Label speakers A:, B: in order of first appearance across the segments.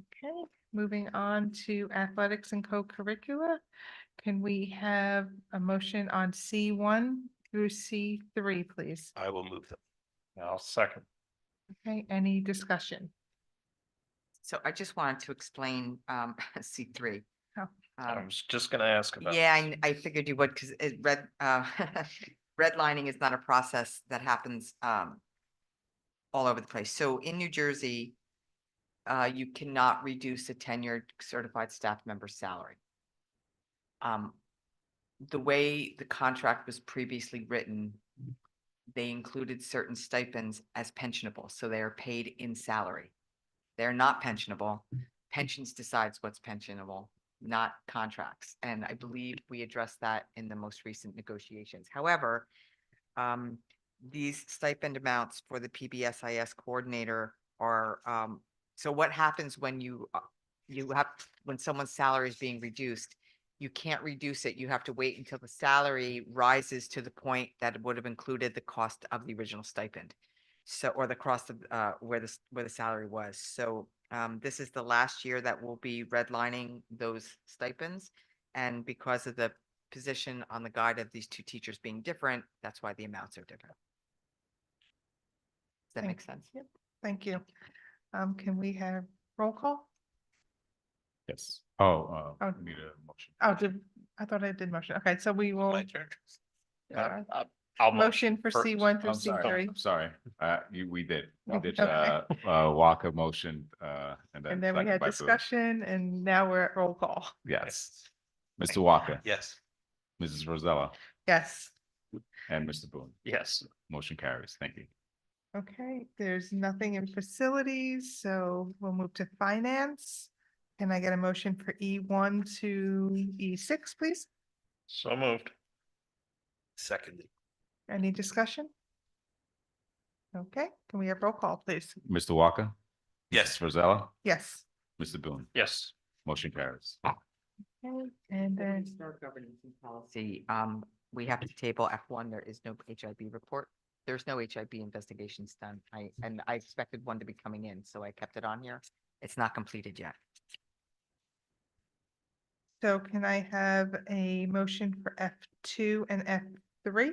A: Okay, moving on to athletics and co-curricula. Can we have a motion on C one through C three, please?
B: I will move them.
C: I'll second.
A: Okay, any discussion?
D: So I just wanted to explain um C three.
A: Oh.
C: I was just gonna ask about.
D: Um, Yeah, I I figured you would, because it red, uh, redlining is not a process that happens um all over the place. So in New Jersey, uh, you cannot reduce a tenured certified staff member's salary. Um, the way the contract was previously written, they included certain stipends as pensionable, so they are paid in salary. They're not pensionable. Pensions decides what's pensionable not contracts. And I believe we addressed that in the most recent negotiations. However, um, these stipend amounts for the PBSIS coordinator are, um, so what happens when you, uh, you have, when someone's salary is being reduced, you can't reduce it. You have to wait until the salary rises to the point that it would have included the cost of the original stipend. So, or the cost of, uh, where the, s- where the salary was. So, um, this is the last year that we'll be redlining those stipends. And because of the position on the guide of these two teachers being different, that's why the amounts are different. Does that make sense?
A: Yep. Thank you. Um, can we have roll call?
C: Yes.
E: Oh, uh,
A: Oh.
E: we need a motion.
A: Oh, did, I thought I did motion. Okay, so we will,
B: My turn.
A: uh,
C: I'll motion.
A: motion for C
C: first.
A: one through
E: I'm
A: C
E: sorry,
A: three. Oh,
E: I'm sorry. Uh, you, we did, we did,
A: Okay.
E: uh, uh, walk a motion, uh, and then.
A: And then we
E: second
A: had
E: by Booth.
A: discussion and now we're at roll call.
E: Yes. Mr. Walker,
B: Yes.
E: Mrs. Rosella,
A: Yes.
E: and Mr. Boone.
C: Yes,
E: Motion carries. Thank you.
A: Okay, there's nothing in facilities, so we'll move to finance. Can I get a motion for E one to E six, please?
C: so moved.
B: Secondly,
A: Any discussion? Okay, can we have roll call, please?
E: Mr. Walker?
B: Yes.
E: Mrs. Rosella,
A: Yes.
E: Mr. Boone.
C: Yes,
E: Motion carries.
A: Okay, And
D: Before we
A: then,
D: start governance and Policy, um, we have to table F one, there is no HIB report. There's no HIB investigations done. I, and I expected one to be coming in, so I kept it on here. It's not completed yet.
A: so can I have a motion for F two and F three?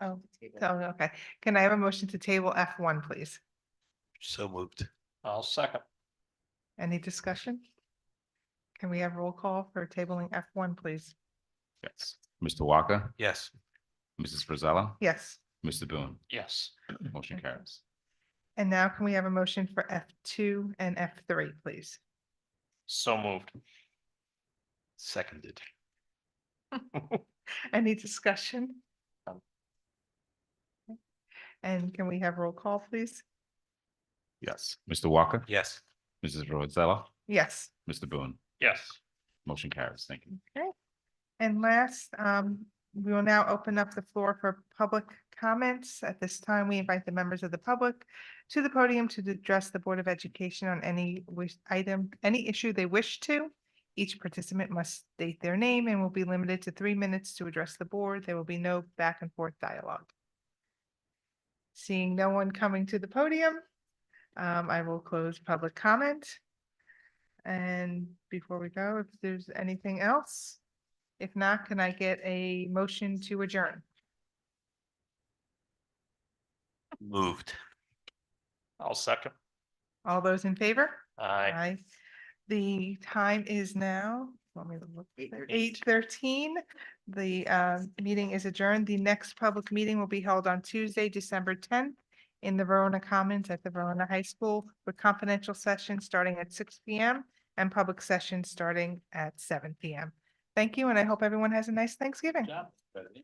A: Oh, Oh, okay. Can I have a motion to table F one, please?
B: so moved.
C: I'll second.
A: Any discussion? Can we have roll call for tabling F one, please?
E: Yes. Mr. Walker,
B: Yes.
E: Mrs. Rosella,
A: Yes.
E: Mr. Boone.
C: Yes,
E: Motion
A: Okay.
E: carries.
A: And now can we have a motion for F two and F three, please?
C: so moved.
B: Seconded.
A: Any discussion?
C: Um.
A: Okay. And can we have roll call, please?
E: Yes. Mr. Walker,
B: Yes.
E: Mrs. Rosella,
A: Yes.
E: Mr. Boone.
C: Yes,
E: Motion carries. Thank you.
A: And last, um, we will now open up the floor for public comments. At this time, we invite the members of the public to the podium to address the Board of Education on any wish item, any issue they wish to. Each participant must state their name and will be limited to three minutes to address the board. There will be no back and forth dialogue. Seeing no one coming to the podium, um, I will close public comment. And before we go, if there's anything else? If not, can I get a motion to adjourn?
B: Moved.
C: I'll second.
A: All those in favor?
C: Aye.
A: The time is now, let me look, eight
D: 8:13.
A: thirteen. The uh, meeting is adjourned. The next public meeting will be held on Tuesday, December tenth in the Verona Commons at the Verona High School with confidential sessions starting at six P M and public sessions starting at seven P M. Thank you, and I hope everyone has a nice Thanksgiving.
C: Job.